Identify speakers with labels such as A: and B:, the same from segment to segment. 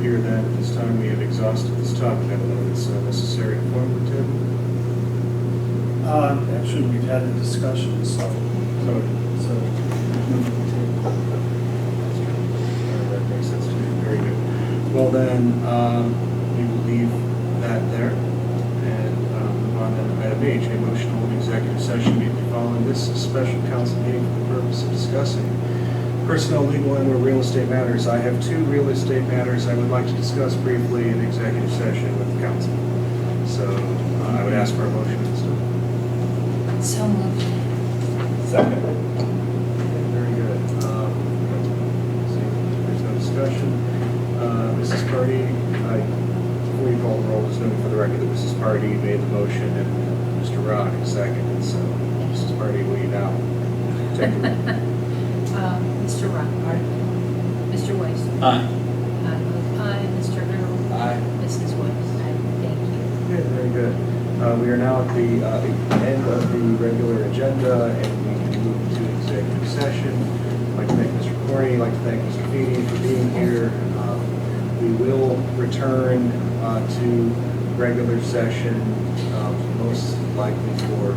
A: hear that at this time. We have exhausted this topic. I don't know if it's uh, necessary and formative.
B: Uh, Actually, we've had a discussion, so,
A: So
B: so.
A: uh, that makes sense to me. Very good. Well, then, um, we will leave that there and um, move on then to item H, a motion to hold an executive session immediately following this special council meeting for the purpose of discussing personnel, legal, and or real estate matters. I have two real estate matters I would like to discuss briefly in executive session with council. So uh, I would ask for a motion instead.
C: So moved.
D: Second.
A: Very good. Um, see, There's no discussion. Uh, Mrs. Purdy, I, before you call the roll, just note for the record that Mrs. Purdy made the motion and Mr. Rock seconded. So, Mrs. Purdy, will you now take the roll?
C: Um, Mr. Rothbard. Mr. Weiss.
E: Ah,
D: Aye.
C: I vote aye. Mr. Harold.
A: Uh.
D: Aye.
C: Mrs. Weiss. Thank you.
A: Okay, very good. Uh, We are now at the uh, the end of the regular agenda, and we can move to executive session. I'd like to thank Mr. Corney, I'd like to thank Mr. Feeny for being here. Um, We will return uh, to regular session, um, most likely for,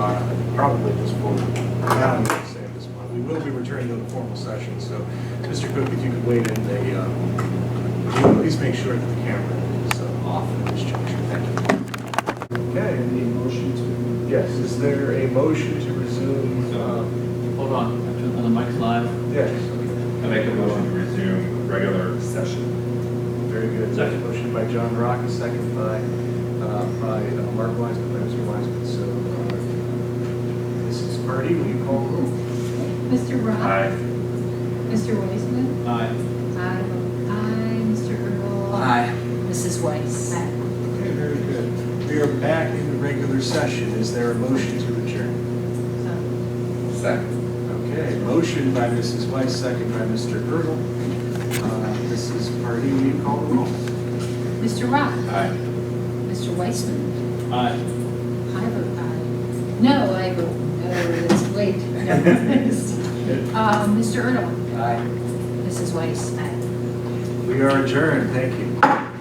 A: uh, probably this fall. Now I'm gonna say this month. We will be returning to the formal session, so Mr. Cook, if you could wait in the, um, Please make sure that the camera is uh, off at this juncture, thank you. Okay,
B: Any motion to?
A: yes, is there a motion to resume? um,
E: Hold on, on the mic's live.
A: Yes,
D: I make a motion to resume regular session.
A: very good.
E: Second.
A: Motion by John Rock, a second by, uh, by uh, Mark Wiseman, by Mr. Wiseman, so. uh, Mrs. Purdy, will you call the roll?
C: Mr. Rock.
D: Aye.
C: Mr. Weissman.
E: Aye.
C: I vote aye. Mr. Harold. Mrs. Weiss.
A: Okay, very good. We are back in the regular session, is there a motion to adjourn?
C: So-
D: Second.
A: Okay, motion by Mrs. Weiss, second by Mr. Girdle. Uh, Mrs. Pardee, will you call the roll?
C: Mr.
A: Uh.
C: Rock.
D: Aye.
C: Mr. Weissman.
E: Aye.
C: I vote aye. No, I vote, no, that's, wait, no. Uh, Mr. Erdl.
A: Aye.
C: Mrs. Weiss. Aye.
A: We are adjourned, thank you.